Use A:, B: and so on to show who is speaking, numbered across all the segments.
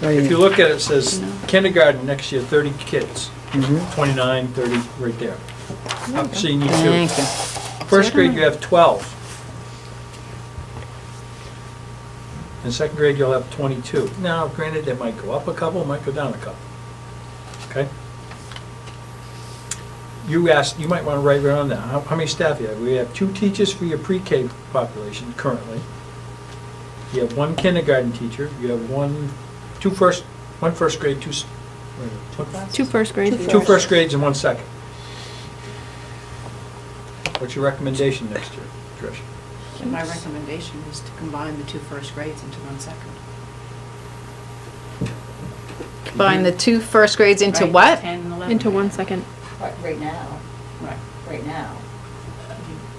A: Right
B: If you
A: here.
B: look at it, it says kindergarten next year, 30 kids,
A: Mhm.
B: Mm-hmm. 29, 30, right there. Up senior two.
A: Thank you.
B: First grade, you have 12. In second grade, you'll have 22. Now, granted, it might go up a couple, it might go down a couple. Okay? You asked, you might want to write around that. How how many staff you have? We have two teachers for your pre-K population currently. You have one kindergarten teacher, you have one, two first, one first grade, two, s- wait a minute, what-
C: Two first grade.
B: Two first grades and one second. What's your recommendation next year, Trish?
D: And My recommendation is to combine the two first grades into one second.
E: Combine the two first grades into
D: Right,
E: what?
D: 10 and 11.
C: Into one second.
F: Right right now,
D: Right.
F: right now, you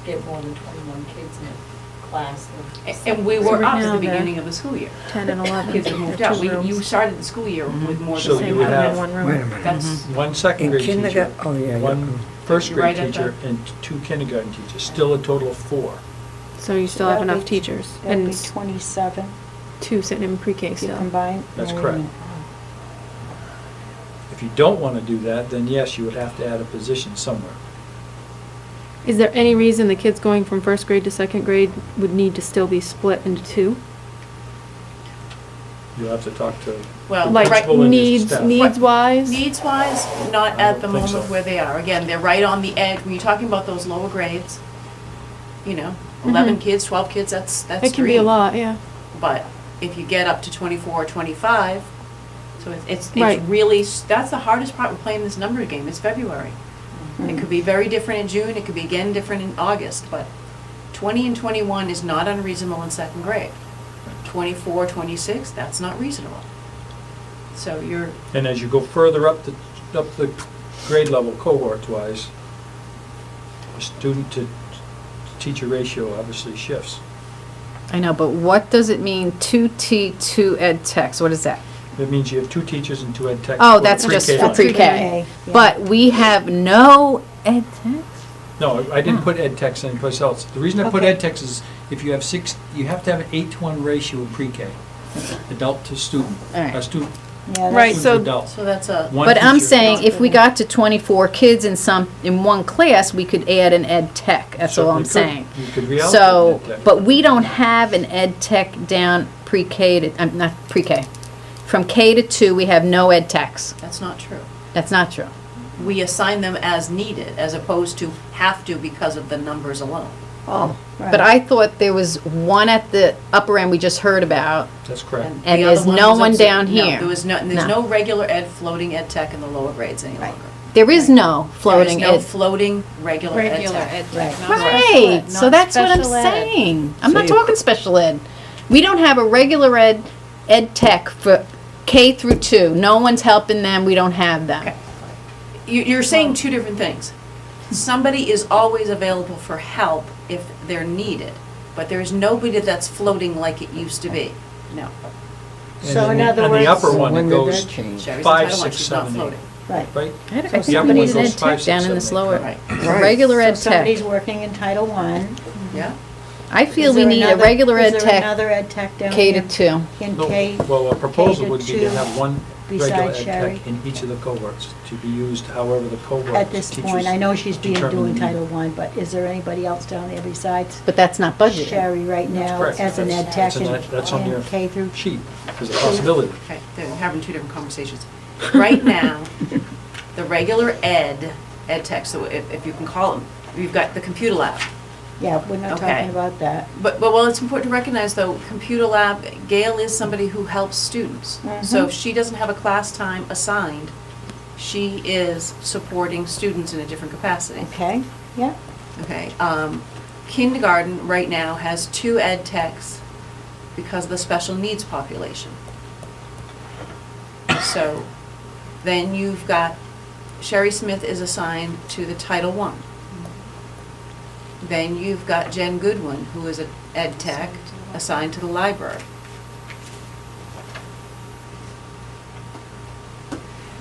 F: get more than 21 kids in a class
D: A-
F: of.
D: And we
C: So
D: were
C: right
D: up at
C: now
D: the
C: they're-
D: beginning of the school year.
C: Ten and eleven.
D: Kids have moved out. We- You started the school year with more
B: So
D: than
B: you
D: same
B: would
D: amount
B: have-
D: of
C: One
A: Wait a
C: room.
A: minute.
D: That's,
B: One second
A: In
B: grade teacher,
A: kindergarten, oh, yeah,
B: one
A: yeah.
B: first
D: You're
B: grade
D: right at
B: teacher,
D: that.
B: and two kindergarten teachers, still a total of four.
C: So you still have
G: That'd
C: enough
G: be-
C: teachers
G: That'd
C: and
G: be 27
C: two sitting in pre-K
G: if you
C: still.
G: combine.
B: That's
G: Wait a
B: correct.
G: minute.
B: If you don't want to do that, then yes, you would have to add a position somewhere.
C: Is there any reason the kids going from first grade to second grade would need to still be split into two?
B: You'll have to talk to
D: well,
B: Like-
D: right,
B: Principal and
C: needs,
B: staff.
C: needs wise?
D: needs-wise, not
B: I
D: at
B: don't
D: the
B: think
D: moment
B: so.
D: where they are. Again, they're right on the edge. When you're talking about those lower grades, you know, 11
C: Mhm.
D: kids, 12 kids, that's, that's
C: It can be a
D: three.
C: lot, yeah.
D: But if you get up to 24 or 25, so it's, it's,
C: Right.
D: it's really, s- that's the hardest part with playing this number game, it's February.
F: Mm-hmm.
D: It could be very different in June, it could be again different in August, but 20 and 21 is not unreasonable in second grade. 24, 26, that's not reasonable. So you're,
B: And as you go further up the, up the grade level cohort-wise, the student to teacher ratio obviously shifts.
E: I know, but what does it mean, two T, two ed techs? What is that?
B: That means you have two teachers and two ed techs.
E: Oh,
B: for the
E: that's just
B: pre-K
E: for
B: line.
E: pre-K. But we have no ed techs?
B: No, I
E: Oh.
B: didn't put ed techs anyplace else. The reason I put
G: Okay.
B: ed techs is if you have six, you have to have an eight to one ratio of pre-K, adult to student.
E: All right.
B: Uh, stu-
G: Yeah, that's-
C: Right,
B: student to
C: so-
B: adult.
D: so that's a,
B: One
E: But I'm
B: teacher.
E: saying if we got to 24 kids in some, in one class, we could add an ed tech. That's all I'm
B: Certainly
E: saying.
B: could. You could
E: So,
B: reallocate ed tech.
E: but we don't have an ed tech down pre-K to, I'm not pre-K. From K to two, we have no ed techs.
D: that's not true.
E: That's not true.
D: We assign them as needed, as opposed to have to because of the numbers alone.
G: Oh, right.
E: But I thought there was one at the upper end we just heard about.
B: That's correct.
E: And
D: the
E: there's
D: other
E: no
D: was
E: one
D: obs-
E: down
D: no,
E: here.
D: There was no, and there's
E: No.
D: no regular ed floating ed tech in the lower grades any longer.
E: There is no floating
D: There is no
E: ed.
D: floating regular ed
G: Regular
D: tech.
E: Right, so that's what I'm saying. I'm not talking special ed. We don't have a regular ed, ed tech for K through two. No one's helping them. We don't have them.
D: Okay. You, you're saying two different things. Somebody is always available for help if they're needed, but there's nobody that's floating like it used to be. No.
F: So
B: And
F: in
B: then
F: other
B: On
F: words-
B: the upper
F: So
B: one,
A: when
B: it
A: did
B: goes
A: that change?
D: Sherry's
B: Five,
D: entitled,
B: six,
D: she's not
B: seven, eight.
D: floating.
F: Right.
B: right?
E: I had
F: So
E: a- Somebody's
F: somebody's
E: an
F: in
E: ed
B: five,
E: tech
B: six,
E: down in
B: seven,
E: this
B: eight.
E: lower,
D: Right,
F: Right.
E: regular ed
F: So Somebody's
E: tech.
F: working in Title One.
D: yeah.
E: I feel we need a regular ed
F: Is there
E: tech,
F: another ed tech down
E: K
F: here?
E: to two.
F: In
B: No,
F: K?
B: Well, a proposal would be
F: K
B: to have one regular ed
F: besides Sherry?
B: tech in each of the cohorts to be used however the cohort.
F: At this point, I know she's being,
B: determine
F: doing
B: the need.
F: Title One, but is there anybody else down there besides
E: But that's not budgeted.
F: Sherry right now
B: Correct.
F: as an ed
B: That's-
F: tech
B: that's an ed- that's on
F: in
B: your
F: in K through?
B: Cheap, there's a possibility.
D: Okay, they're having two different conversations. Right now, the regular ed, ed tech, so if, if you can call them, you've got the computer lab.
F: Yeah, we're not
D: Okay.
F: talking about that.
D: But, but while it's important to recognize though, computer lab, Gail is somebody who helps students. So if she doesn't have a class time assigned, she is supporting students in a different capacity.
F: Okay, yeah.
D: Okay, um, kindergarten right now has two ed techs because of the special needs population. So then you've got, Sherry Smith is assigned to the Title One. Then you've got Jen Goodwin, who is an ed tech assigned to the library.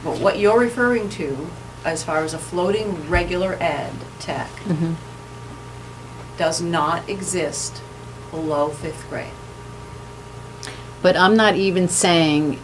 D: But what you're referring to, as far as a floating regular ed tech,
E: Mhm.
D: does not exist below fifth grade.
E: But I'm not even saying